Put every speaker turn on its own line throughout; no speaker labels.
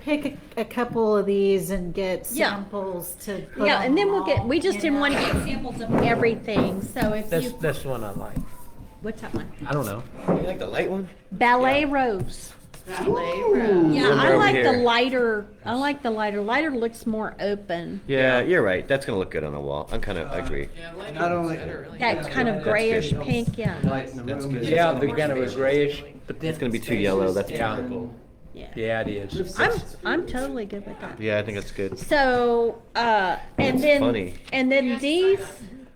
pick a, a couple of these and get
Yeah.
samples to put
Yeah, and then
on
we'll get, we just
you
didn't
know?
want to get samples of everything, so if
That's
you,
that's the one I like.
what's that one?
I don't know.
You like the light one?
Ballet Rose. Yeah,
One
I
over
like the
here.
lighter, I like the lighter. Lighter looks more open,
Yeah, you're right. That's gonna look good on the wall. I'm kind of agree.
Not only-
that kind of
That's
grayish
good.
pink, yeah,
Light in the room is.
Yeah, the kind of a grayish.
It's gonna be too yellow. That's
Yeah.
purple.
yeah.
Yeah, it is.
I'm, I'm totally good with that.
Yeah, I think that's good.
So, uh, and
That's
then,
funny.
and then these,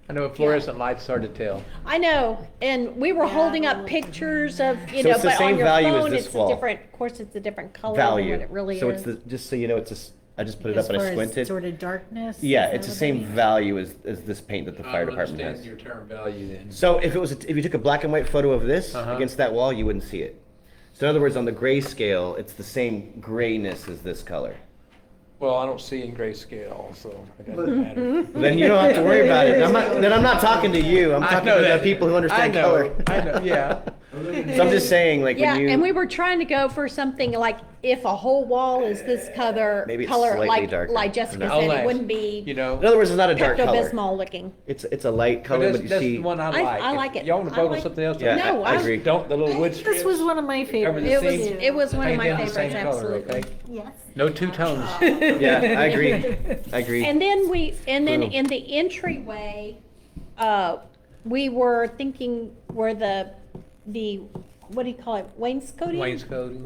I know fluorescent light's hard to tell.
I know, and we were holding up pictures of, you
So
know,
it's the
but on
same
your
value as
phone,
this
it's a
wall.
different, of course, it's a different color than
Value.
what it really is.
so it's the just so you know, it's just I just put it
As
up and
far
I
as
squinted.
Sort of darkness.
Yeah,
is
it's
that
the
what I
same
mean?
value as, as this paint that the fire department
I
has.
understand your term value then.
So if it was, a- if you took a black and white photo of this
Uh-huh.
against that wall, you wouldn't see it. So in other words, on the gray scale, it's the same grayness as this color.
Well, I don't see in grayscale, so it doesn't matter.
Then you don't have to worry about it. I'm not, then I'm not talking to you. I'm
I
talking
know
to the
that.
people who understand
I know,
color.
I know, yeah.
So I'm just saying, like
Yeah,
when you
and we were trying to go for something like if a whole wall is this color,
Maybe it's
color
slightly
like
darker.
like Jessica
No.
said, it
Unless,
wouldn't be
You know.
In other words, it's not a dark
Pepto
color.
Bismol looking.
It's it's a light color,
that's,
but you
that's
see.
the one I
I-
like.
I
If
like it.
Y'all want to
I
vote on
like-
something else?
Yeah,
No,
I, I
I-
agree.
Don't the little wood
This
strips.
was one of my
Cover the
favorites.
It was
seams.
it was one of
Paint
my
them the same
favorites,
color, okay?
absolutely.
Yes.
No two tones.
Yeah, I agree. I agree.
And then we and then
Boom.
in the entryway, uh, we were thinking where the the what do you call it wainscoting?
Wainscoting.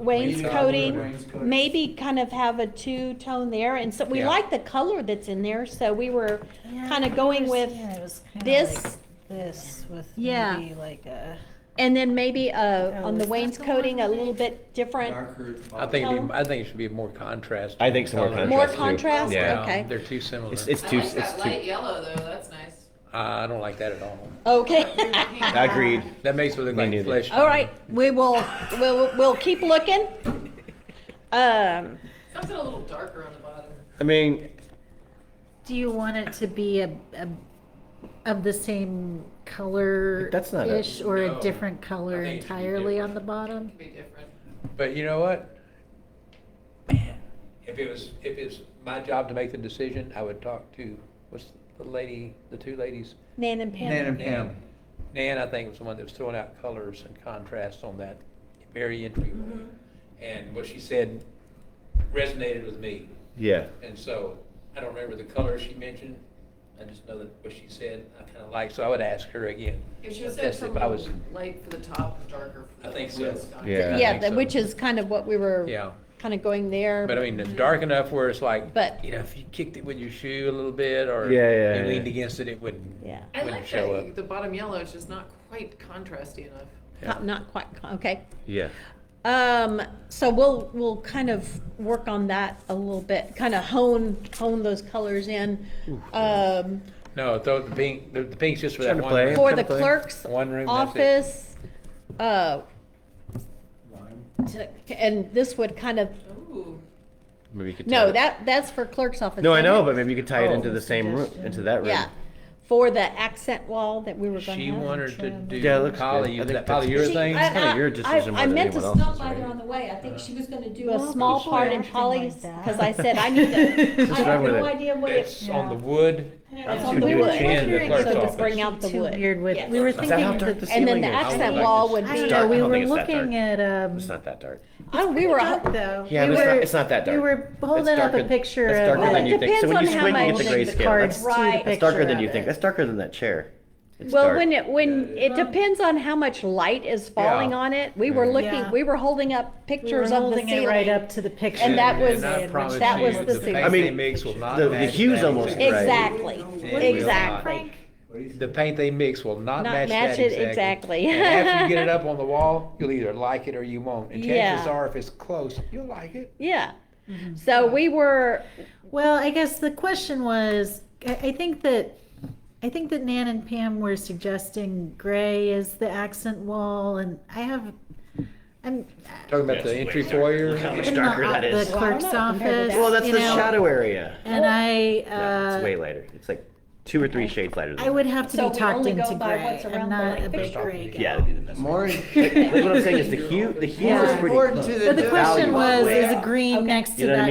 Wainscoting.
Wainscoting.
Maybe kind of have a two tone there, and so we
Yeah.
like the color that's in there. So we were
Yeah,
kind of
I
going with
understand. It was kinda
this.
like This with
Yeah.
maybe like a.
And then maybe uh,
Oh,
on
is
the
that the one
wainscoting, a
that-
little bit different,
Darker.
I think, it'd be- I think it should be more contrast.
I think some more
color.
more
Contrast
contrast,
too. Yeah.
okay.
They're too similar.
it's it's
I
too
like
it's
that light
too.
yellow though, that's nice.
I don't like that at all.
Okay,
Agreed.
That makes it look
Me
like
neither.
flesh.
all right, we will, we'll, we'll keep looking. Um,
Something a little darker on the bottom.
I mean,
Do you want it to be a, a of the same color
That's not a-
ish or
No.
a different color
I think it should be
entirely
different.
on the bottom?
Could be different.
But you know what? If it was, if it's my job to make the decision, I would talk to, what's the lady, the two ladies?
Nan and
Nan
Pam,
and Pam.
Nan, I think, was the one that was throwing out colors and contrasts on that very
Mm-hmm.
entryway. And what she said resonated with me.
yeah.
And so I don't remember the color she mentioned. I just know that what she said, I kind of liked, so I would ask her again.
If you said
That's if I was,
something light for the top and darker for the.
I think so.
waistline.
Yeah. I
yeah,
think
that-
so.
which is kind of what we were
yeah.
kind of going there.
But I mean, it's dark enough where it's like,
But-
you know, if you kicked it with your shoe a little bit or
Yeah, yeah,
you
yeah.
leaned against it, it wouldn't,
Yeah.
I
wouldn't
like
show up.
that, the bottom yellow is just not quite contrasty enough.
Not- Not quite, okay.
Yeah.
Um, so we'll, we'll kind of work on that a little bit, kind of hone, hone those colors in. Um,
No, throw the pink, the, the pink's just for
Trying
that
to
one
play.
room.
for the
Template.
clerk's
One room, that's it.
office. uh, to- And this would kind of,
Ooh,
Maybe you could. tie
no,
it-
that, that's for clerk's office.
No, I
isn't
know,
it?
but maybe you could tie it
Oh.
into the same room, into that room.
Yeah, for the accent wall that we were gonna
She
have.
wanted to
trim.
do
Yeah, it looks
poly,
good. I
that
think that's-
She-
polyurethane.
I-
It's kinda
I-
your
I-
decision
I
whether
meant to
anyone else's,
stop by there
right? Uh-huh.
on the way. I think she was gonna do a
Well,
small
it's
part
fine.
in Polly's,
Something like that.
cause I said I need to, I
wrong
have
with
no
it?
idea what it.
It's on the wood.
It's
to
on the
do
wood.
the chin, the
So
clerk's
to
office.
bring out the
Too
wood.
weird with-
Yes.
we were
Is that
thinking-
how dark the
And then
ceiling
the
is?
accent
I don't think
wall
it's-
would
I
be-
don't
dark.
know,
I
we
don't
were
think it's that
looking at, um.
It's not that dark.
Oh, we were,
dark, though.
Yeah,
We
but it's
were-
not, it's not that dark.
We were holding
It's
up a
darker-
picture
that's
of.
darker
Well,
than
it
you think. So when
depends
you
on how
squint, you
much
get
the
the gray
the
scale.
cards
That's
to
Right.
the
That's
that's
picture
darker than
of
you
it.
think. That's darker than that chair. It's
well,
dark.
when it, when, it
Well-
depends on how much light is falling
Yeah.
on it. We were looking,
Yeah.
we were holding up
We were
pictures of the
holding it right
ceiling.
up to the picture.
And that was-
And I promise
that
you,
was the ceiling.
paint
I mean,
they mix will not
the- the
match
hue's
that.
almost right.
Exactly,
It will not.
exactly.
The paint they mix will not
Not
match
match
that
it exactly.
exactly. And after you get it up on the wall, you'll either like it or you won't. And chances
Yeah.
are, if it's close, you'll like it.
Yeah. So we were,
Well, I guess the question was, I, I think that, I think that Nan and Pam were suggesting gray is the accent wall, and I have, I'm.
Talking about the entry foyer.
Look how much
I'm
darker
not
that
at
is.
The clerk's
Well, I don't know compared
office.
to
Well, that's
you
the
know,
shadow area.
And I,
No, it's way
uh,
lighter. It's like two or three shades lighter than
I would have
So
to
we
be talked
only go
into
by
gray.
what's
I'm
around the
not a
light
big
fixture.
gray
that.
guy.
Yeah, that'd be the best.
More.
Like what I'm saying is the hue, the hue
Yeah.
is pretty
Important to
close.
the
But the question was,
Value. Yeah.
is green
Okay.
next to
You know what I
that
mean?